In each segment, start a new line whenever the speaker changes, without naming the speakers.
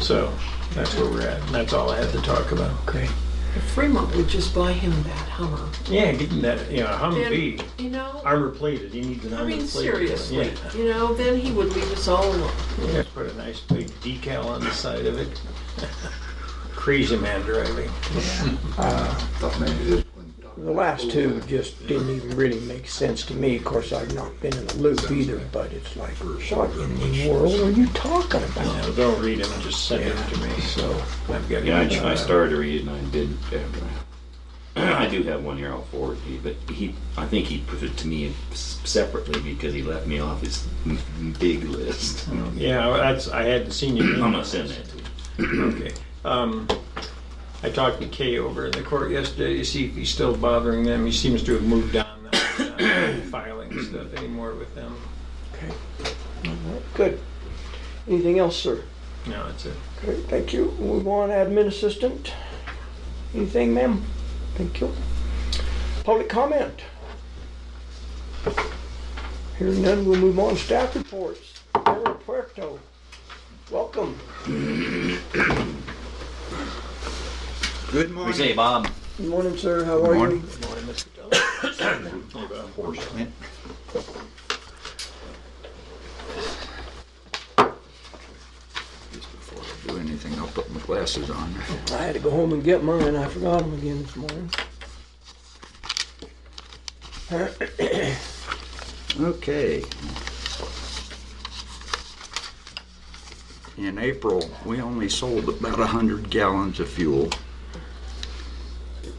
So that's where we're at. And that's all I had to talk about.
Great.
If Fremont would just buy him that Hummer.
Yeah, getting that, you know, Humvee,
Then, you know,
armor plated. He needs an
I
armor plated.
mean,
one.
seriously,
Yeah.
you know, then he would leave us all alone.
Yeah, put a nice big decal on the side of it. Crazy man driving.
Thought maybe this one.
The last two just didn't even really make sense to me. Of course, I've not been in the loop either, but it's like, what in the world are you talking about?
Now, don't read them, just send them to me.
So,
I've got. uh,
Yeah, I,
it.
tr- I started to read it and I did. I do have one here I'll forward to you, but he, I think he put it to me s- separately because he left me off his m- m- big list.
Yeah, that's, I hadn't seen you.
I'm gonna send that to you.
Okay. Um, I talked to Kay over at the court yesterday to see if he's still bothering them. He seems to have moved on. now. He's not Filing stuff anymore with them.
okay. All right, Good. Anything else, sir?
No, it's a,
Great, thank you. Move on, admin assistant. Anything, ma'am? Thank you. Public comment? Hearing none, we'll move on. Staff reports. Carol Puerto, welcome.
Good
What do you
morning.
say, Bob?
Good morning, sir. How are you?
Morning. Just before I do anything, I'll put my glasses on.
I had to go home and get mine. I forgot them again this morning.
Okay. In April, we only sold about 100 gallons of fuel.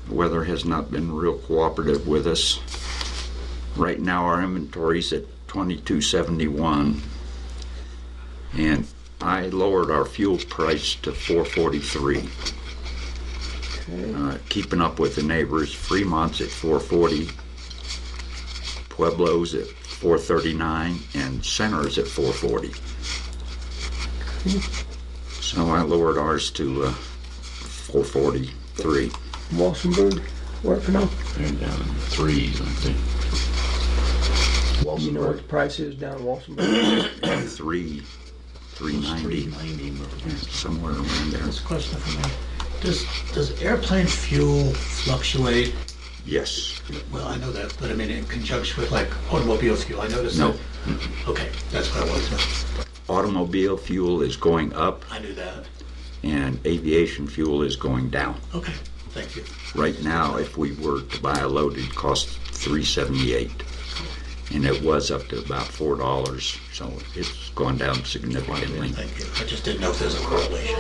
Weather has not been real cooperative with us. Right now, our inventory's at 2271. And I lowered our fuel price to 443. Uh, Keeping up with the neighbors, Fremont's at 440, Pueblo's at 439 and Center's at 440. So I lowered ours to uh, 443.
Walsenburg, working on.
They're down in the threes, I think.
You know what the price is down in Walsenburg?
Three, 390, somewhere around there.
This question for me. Does, does airplane fuel fluctuate?
Yes.
Well, I know that, but I mean, in conjunction with like automobile fuel, I noticed
No.
that. Okay, that's what I wanted to know.
Automobile fuel is going up
I knew that.
and aviation fuel is going down.
Okay, thank you.
Right now, if we were to buy a load, it costs 378. And it was up to about $4, so it's gone down significantly.
Thank you. I just didn't know if there's a correlation.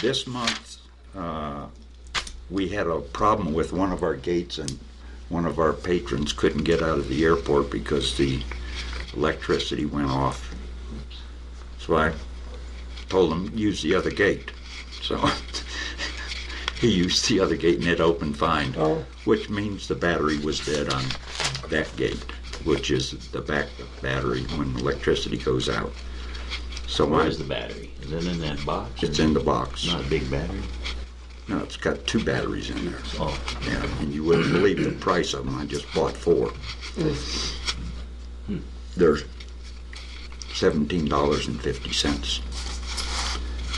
This month, uh, we had a problem with one of our gates and one of our patrons couldn't get out of the airport because the electricity went off. So I told him, use the other gate. So he used the other gate and it opened fine,
Oh.
which means the battery was dead on that gate, which is the backup battery when electricity goes out. So
Where
I,
is the battery? Is it in that box?
it's in the box.
Not a big battery.
No, it's got two batteries in there.
Oh,
Yeah, and you wouldn't believe the price of them. I just bought four. They're seventeen dollars and fifty cents.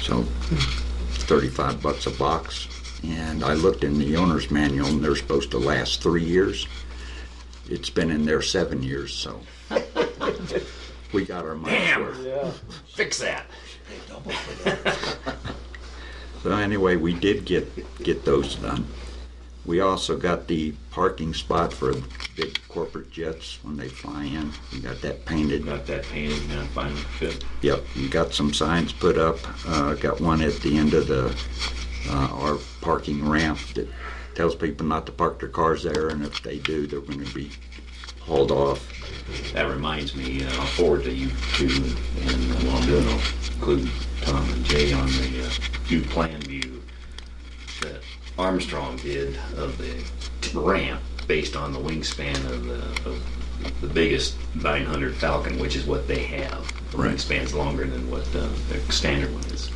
So thirty-five bucks a box. And I looked in the owner's manual, and they're supposed to last three years. It's been in there seven years, so we got our money's worth.
Yeah.
fix that.
So anyway, we did get, get those done. We also got the parking spot for the big corporate jets when they fly in. We got that painted.
Got that painted now, finally fit.
Yep, we got some signs put up. Uh, got one at the end of the, uh, our parking ramp that tells people not to park their cars there and if they do, they're gonna be hauled off.
That reminds me, uh, I'll forward to you too, and uh, while I'm doing, it, I'll include Tom and Jay on the uh, new plan view that Armstrong did of the ramp based on the wingspan of the, of the biggest 900 Falcon, which is what they have. The
Right.
wingspan's longer than what uh, their standard one is.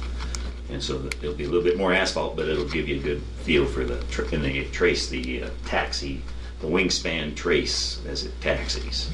And so that it'll be a little bit more asphalt, but it'll give you a good feel for the, tr- and they trace the uh, taxi, the wingspan trace as it taxis.